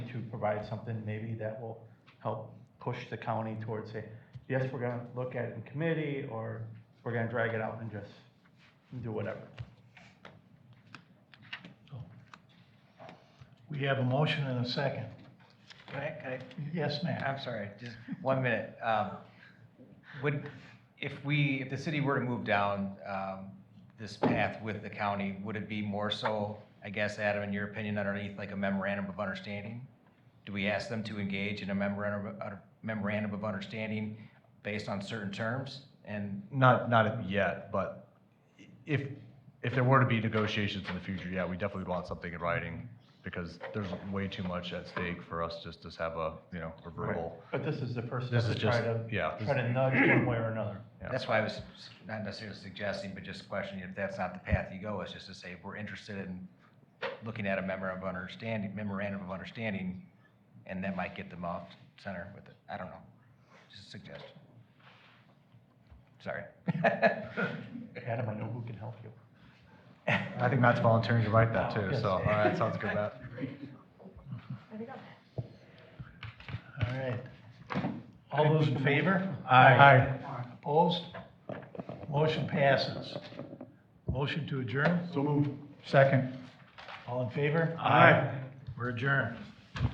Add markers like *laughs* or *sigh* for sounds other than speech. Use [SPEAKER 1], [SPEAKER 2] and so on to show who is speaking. [SPEAKER 1] provide something maybe that will help push the county towards say, yes, we're gonna look at it in committee, or we're gonna drag it out and just do whatever.
[SPEAKER 2] We have a motion and a second.
[SPEAKER 3] Can I, can
[SPEAKER 2] Yes,
[SPEAKER 3] I,
[SPEAKER 2] ma'am.
[SPEAKER 3] I'm sorry, just one minute. Um, Would, if we, if the city were to move down um, this path with the county, would it be more so, I guess, Adam, in your opinion, underneath like a memorandum of understanding? Do we ask them to engage in a memorandum, of- a memorandum of understanding based on certain terms? And,
[SPEAKER 4] Not, not yet, but if, if there were to be negotiations in the future, yeah, we definitely would want something in writing because there's way too much at stake for us just to have a, you know, a verbal.
[SPEAKER 1] But this is the first step
[SPEAKER 4] This
[SPEAKER 1] to
[SPEAKER 4] is
[SPEAKER 1] try
[SPEAKER 4] just-
[SPEAKER 1] to,
[SPEAKER 4] yeah, this-
[SPEAKER 1] try to nudge one way or another.
[SPEAKER 4] Yeah.
[SPEAKER 3] that's why I was not necessarily suggesting, but just questioning if that's not the path you go, is just to say, we're interested in looking at a memorandum of understanding, memorandum of understanding, and that might get them off center with it. I don't know. Just a suggestion. Sorry. *laughs*
[SPEAKER 1] Adam, I know who can help you.
[SPEAKER 4] I think Matt's volunteering to write that too, so, all right, sounds good, Matt.
[SPEAKER 2] All right. All those in favor?
[SPEAKER 4] Aye.
[SPEAKER 2] Opposed? Motion passes. Motion to adjourn?
[SPEAKER 5] So moved.
[SPEAKER 2] Second. All in favor?
[SPEAKER 5] Aye.
[SPEAKER 2] We're adjourned.